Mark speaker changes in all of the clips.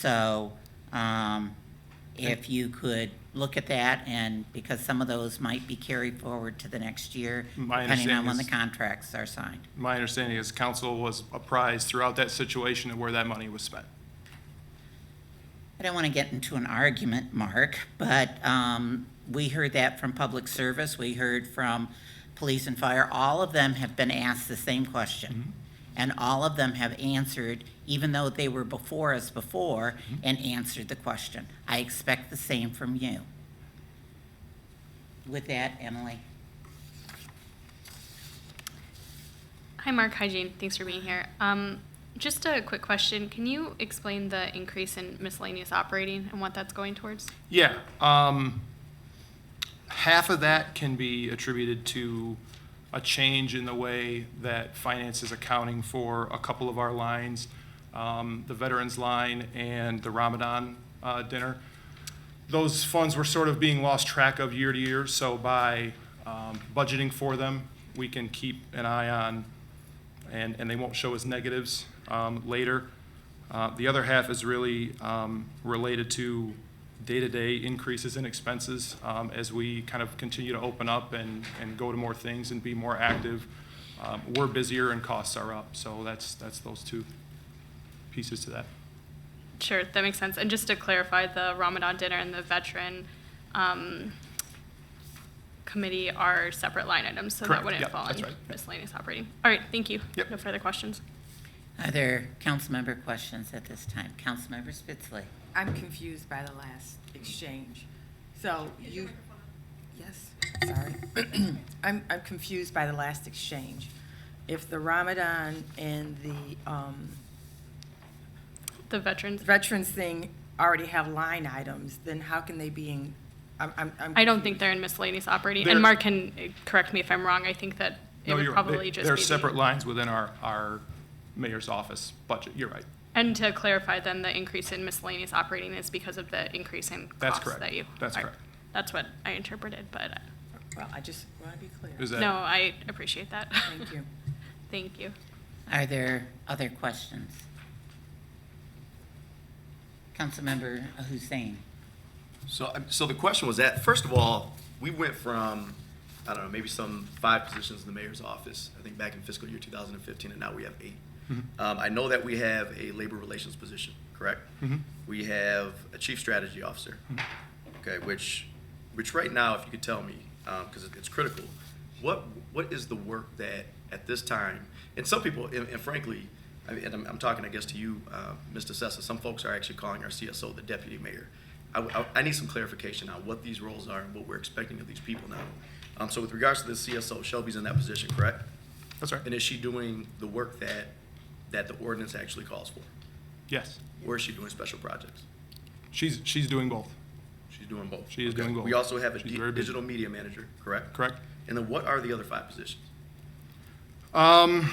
Speaker 1: So um, if you could look at that and, because some of those might be carried forward to the next year,
Speaker 2: My
Speaker 1: depending on
Speaker 2: understanding
Speaker 1: when the
Speaker 2: is-
Speaker 1: contracts are signed.
Speaker 2: My understanding is council was apprised throughout that situation of where that money was spent.
Speaker 1: I don't want to get into an argument, Mark, but um, we heard that from public service, we heard from police and fire. All of them have been asked the same question. And all of them have answered, even though they were before us before, and answered the question. I expect the same from you. With that, Emily,
Speaker 3: Hi, Mark. Hi, Jane. Thanks for being here. Um, just a quick question. Can you explain the increase in miscellaneous operating and what that's going towards?
Speaker 2: Yeah, um, half of that can be attributed to a change in the way that finance is accounting for a couple of our lines, um, the veterans line and the Ramadan, uh, dinner. Those funds were sort of being lost track of year to year, so by, um, budgeting for them, we can keep an eye on, and, and they won't show as negatives, um, later. Uh, The other half is really um, related to day-to-day increases in expenses um, as we kind of continue to open up and, and go to more things and be more active. Um, We're busier and costs are up, so that's, that's those two pieces to that.
Speaker 3: Sure, that makes sense. And just to clarify, the Ramadan dinner and the veteran um, committee are separate line items, so
Speaker 2: Correct.
Speaker 3: that wouldn't
Speaker 2: Yep,
Speaker 3: fall
Speaker 2: that's
Speaker 3: under
Speaker 2: right. Yep.
Speaker 3: miscellaneous operating. All right, thank you.
Speaker 2: Yep.
Speaker 3: No further questions.
Speaker 1: are there council member questions at this time? Councilmember Spitzley?
Speaker 4: I'm confused by the last exchange. So you, yes, sorry. I'm, I'm confused by the last exchange. If the Ramadan and the um,
Speaker 3: The veterans.
Speaker 4: veterans thing already have line items, then how can they be in, I'm, I'm. I'm
Speaker 3: I don't think
Speaker 4: confused.
Speaker 3: they're in miscellaneous operating.
Speaker 2: They're-
Speaker 3: and Mark can uh, correct me if I'm wrong. I think that it
Speaker 2: No,
Speaker 3: would
Speaker 2: you're right. They-
Speaker 3: probably just
Speaker 2: They're
Speaker 3: be the-
Speaker 2: separate lines within our, our mayor's office budget. You're right.
Speaker 3: And to clarify, then the increase in miscellaneous operating is because of the increase in
Speaker 2: That's
Speaker 3: costs
Speaker 2: correct.
Speaker 3: that you.
Speaker 2: That's
Speaker 3: all right.
Speaker 2: correct.
Speaker 3: That's what I interpreted, but uh,
Speaker 4: Well, I just want to be clear.
Speaker 2: Is that?
Speaker 3: no, I appreciate that.
Speaker 4: Thank you.
Speaker 3: Thank you.
Speaker 1: Are there other questions? Councilmember Hussein?
Speaker 5: So, I- so the question was that, first of all, we went from, I don't know, maybe some five positions in the mayor's office, I think back in fiscal year 2015, and now we have eight. Um, I know that we have a labor relations position, correct?
Speaker 2: Mhm.
Speaker 5: We have a chief strategy officer,
Speaker 2: Mm-hmm.
Speaker 5: okay, which, which right now, if you could tell me, because it's critical, what, what is the work that at this time, and some people, and and frankly, I mean, and I'm, I'm talking, I guess, to you, uh, Mr. Sessa, some folks are actually calling our CSO the deputy mayor. I, I, I need some clarification on what these roles are and what we're expecting of these people now. Um, so with regards to the CSO, Shelby's in that position, correct?
Speaker 2: That's right.
Speaker 5: And is she doing the work that, that the ordinance actually calls for?
Speaker 2: Yes.
Speaker 5: Or is she doing special projects?
Speaker 2: She's, she's doing both.
Speaker 5: She's doing both.
Speaker 2: She is
Speaker 5: Okay.
Speaker 2: doing both.
Speaker 5: We also have a
Speaker 2: She's
Speaker 5: di-
Speaker 2: very busy.
Speaker 5: digital media manager, correct?
Speaker 2: Correct?
Speaker 5: And then what are the other five positions?
Speaker 2: Um,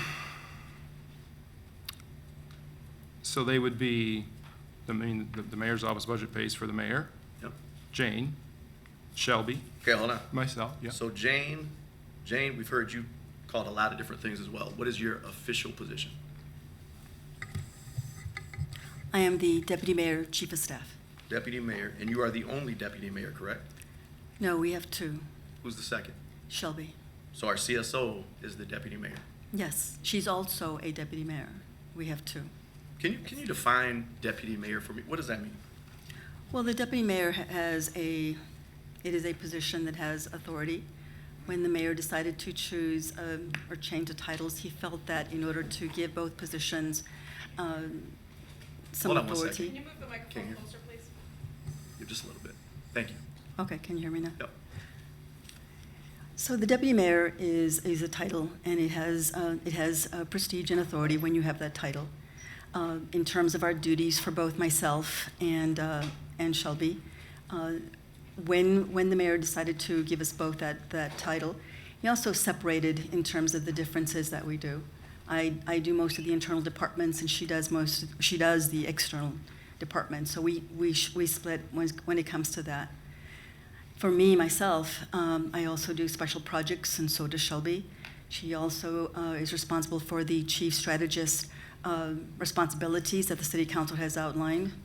Speaker 2: so they would be, I mean, the, the mayor's office budget pays for the mayor,
Speaker 5: Yep.
Speaker 2: Jane, Shelby,
Speaker 5: Okay, hold on.
Speaker 2: myself, yeah.
Speaker 5: So Jane, Jane, we've heard you called a lot of different things as well. What is your official position?
Speaker 6: I am the deputy mayor, chief of staff.
Speaker 5: Deputy mayor, and you are the only deputy mayor, correct?
Speaker 6: No, we have two.
Speaker 5: Who's the second?
Speaker 6: Shelby.
Speaker 5: So our CSO is the deputy mayor.
Speaker 6: Yes, she's also a deputy mayor. We have two.
Speaker 5: Can you, can you define deputy mayor for me? What does that mean?
Speaker 6: Well, the deputy mayor ha- has a, it is a position that has authority. When the mayor decided to choose um, or change the titles, he felt that in order to give both positions um, some
Speaker 5: Hold on one
Speaker 6: authority.
Speaker 5: second.
Speaker 7: Can you move the
Speaker 5: Can't
Speaker 7: microphone
Speaker 5: hear.
Speaker 7: closer, please?
Speaker 5: Just a little bit. Thank you.
Speaker 6: Okay, can you hear me now?
Speaker 5: Yep.
Speaker 6: So the deputy mayor is, is a title, and it has, uh, it has uh, prestige and authority when you have that title. Uh, In terms of our duties for both myself and, uh, and Shelby, uh, when, when the mayor decided to give us both that, that title, he also separated in terms of the differences that we do. I, I do most of the internal departments, and she does most, she does the external departments. So we, we, sh- we split when, when it comes to that. For me, myself, um, I also do special projects, and so does Shelby. She also uh, is responsible for the chief strategist uh, responsibilities that the city council has outlined